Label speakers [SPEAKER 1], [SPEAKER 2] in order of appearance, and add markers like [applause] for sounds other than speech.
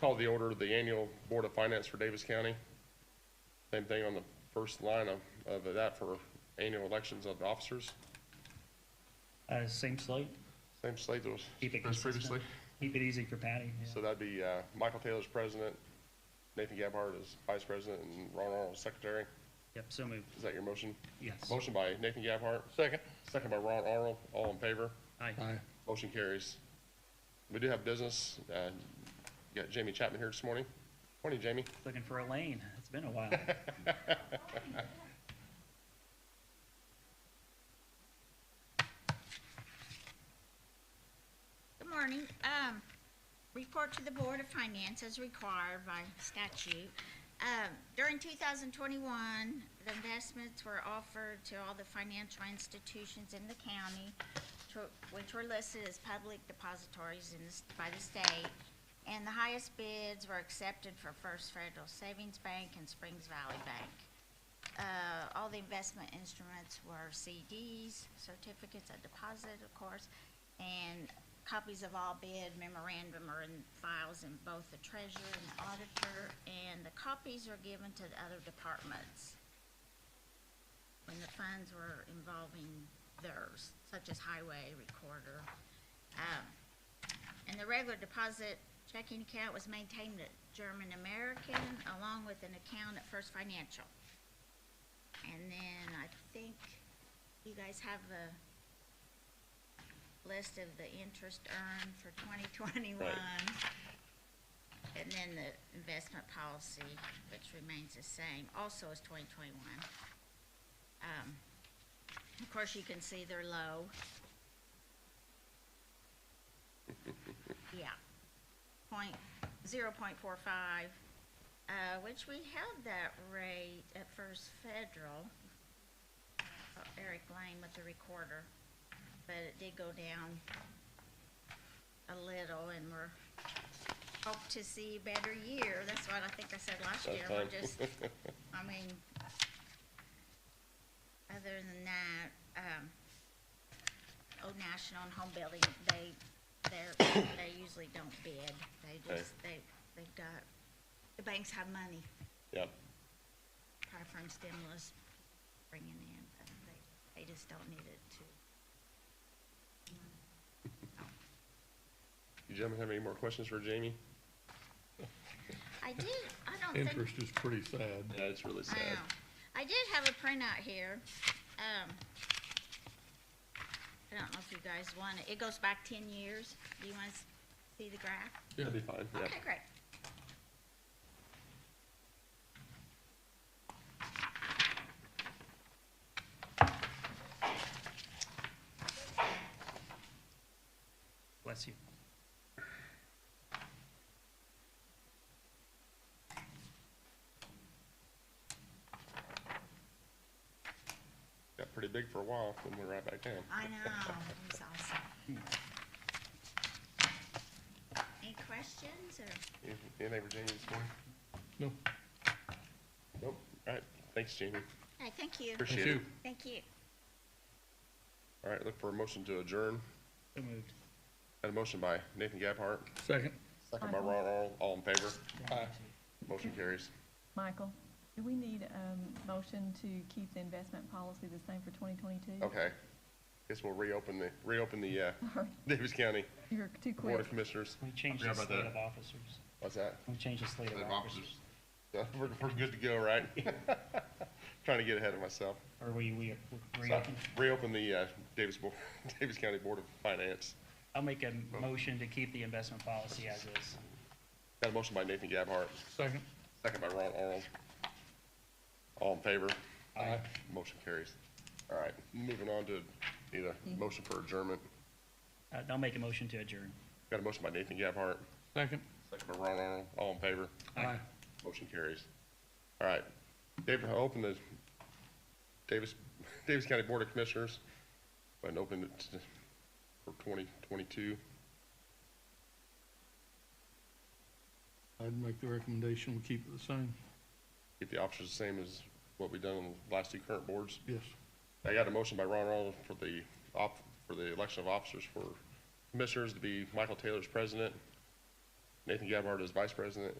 [SPEAKER 1] Call the order of the annual Board of Finance for Davis County. Same thing on the first line of, of that for annual elections of officers.
[SPEAKER 2] Uh, same slate,
[SPEAKER 1] Same slate that was
[SPEAKER 2] Keep it
[SPEAKER 1] as
[SPEAKER 2] consistent.
[SPEAKER 1] previously.
[SPEAKER 2] keep it easy for Patty, yeah.
[SPEAKER 1] So that'd be, uh, Michael Taylor's president, Nathan Gabhart is vice president, and Ron Arnold is secretary.
[SPEAKER 2] Yep, so moved,
[SPEAKER 1] Is that your motion?
[SPEAKER 2] yes.
[SPEAKER 1] Motion by Nathan Gabhart. Second. Second by Ron Arnold, all in favor.
[SPEAKER 2] Aye,
[SPEAKER 1] Motion carries. We do have business. Uh, got Jamie Chapman here this morning. Morning, Jamie.
[SPEAKER 2] looking for Elaine, it's been
[SPEAKER 1] [laughs]
[SPEAKER 2] a while.
[SPEAKER 3] Good morning. Um, report to the Board of Finance as required by statute. Um, during two thousand twenty-one, the investments were offered to all the financial institutions in the county, to- which were listed as public depositories in, the s- by the state. And the highest bids were accepted for First Federal Savings Bank and Springs Valley Bank. Uh, all the investment instruments were CDs, certificates of deposit, of course, and copies of all bid memorandum are in files in both the treasurer and the auditor, and the copies are given to the other departments when the funds were involving theirs, such as highway, recorder. Um, and the regular deposit checking account was maintained at German American, along with an account at First Financial. And then I think you guys have a list of the interest earned for twenty twenty-one. And then the investment policy, which remains the same, also is twenty twenty-one. Um, of course, you can see they're low. Yeah, point, zero point four five, uh, which we held that rate at First Federal. Uh, Eric Lane with the recorder, but it did go down a little and we're, hope to see a better year. That's what I think I said last
[SPEAKER 1] That's
[SPEAKER 3] year. We're
[SPEAKER 1] fine. [laughs]
[SPEAKER 3] just, I mean, other than that, um, Old National and Home Building, they, they're, they usually don't bid. They
[SPEAKER 1] Okay.
[SPEAKER 3] just, they, they've got, the banks have money
[SPEAKER 1] Yeah,
[SPEAKER 3] probably from stimulus bringing in, but they, they just don't need it to.
[SPEAKER 1] you gentlemen have any more questions for Jamie?
[SPEAKER 3] I did, I don't think,
[SPEAKER 4] Interest is pretty sad.
[SPEAKER 1] Yeah, it's really
[SPEAKER 3] I know. I did have a printout here. Um, I don't know if you guys want it. It goes back ten years. Do you want to see the graph?
[SPEAKER 1] That'd be fine, yeah.
[SPEAKER 3] Okay, great.
[SPEAKER 2] bless you.
[SPEAKER 1] Got pretty big for a while, then went right back down.
[SPEAKER 3] I know, it was awesome. Any questions
[SPEAKER 1] [laughs]
[SPEAKER 3] or?
[SPEAKER 1] Any- Anything for Jamie this morning?
[SPEAKER 4] No,
[SPEAKER 1] Nope. All right, thanks, Jamie.
[SPEAKER 3] Hey, thank you.
[SPEAKER 1] Appreciate
[SPEAKER 4] thank
[SPEAKER 1] it.
[SPEAKER 4] you.
[SPEAKER 3] Thank you.
[SPEAKER 1] All right, look for a motion to adjourn.
[SPEAKER 2] So moved.
[SPEAKER 1] Had a motion by Nathan Gabhart,
[SPEAKER 4] Second.
[SPEAKER 1] second by Ron Arnold, all in favor. Motion carries.
[SPEAKER 5] Michael, do we need a motion to keep the investment policy the same for 2022?
[SPEAKER 1] Okay. Guess we'll reopen the, reopen the, uh,
[SPEAKER 3] [laughs]
[SPEAKER 5] Sorry,
[SPEAKER 1] Davis County
[SPEAKER 5] You're too
[SPEAKER 1] Board
[SPEAKER 5] quick.
[SPEAKER 1] of Commissioners.
[SPEAKER 2] We changed the
[SPEAKER 1] Forgot about
[SPEAKER 2] slate
[SPEAKER 1] that.
[SPEAKER 2] of officers,
[SPEAKER 1] What's that?
[SPEAKER 2] we changed the slate of
[SPEAKER 1] Slate of
[SPEAKER 2] officers.
[SPEAKER 1] [laughs] We're, we're good to go, right? [laughs] Trying to get ahead of myself.
[SPEAKER 2] Or we, we
[SPEAKER 1] So,
[SPEAKER 2] reopened.
[SPEAKER 1] Reopen the uh, Davis, Bo- [laughs] Davis County Board of Finance.
[SPEAKER 2] I'll make a motion to keep the investment policy as is.
[SPEAKER 1] Got a motion by Nathan Gabhart,
[SPEAKER 4] Second.
[SPEAKER 1] second by Ron Arnold. All in favor?
[SPEAKER 4] Aye.
[SPEAKER 1] Motion carries. All right, moving on to need a motion for adjournment.
[SPEAKER 2] Uh, I'll make a motion to adjourn.
[SPEAKER 1] Got a motion by Nathan Gabhart,
[SPEAKER 4] Second.
[SPEAKER 1] second by Ron Arnold. All in favor?
[SPEAKER 4] Aye.
[SPEAKER 1] Motion carries. All right. David, I'll open the Davis, Davis County Board of Commissioners, and open it to- for 2022.
[SPEAKER 4] I'd make the recommendation, we keep it the same.
[SPEAKER 1] Keep the options the same as what we've done on the last two current boards.
[SPEAKER 4] Yes.
[SPEAKER 1] I got a motion by Ron Arnold for the op, for the election of officers for commissioners to be Michael Taylor's president, Nathan Gabhart as vice president,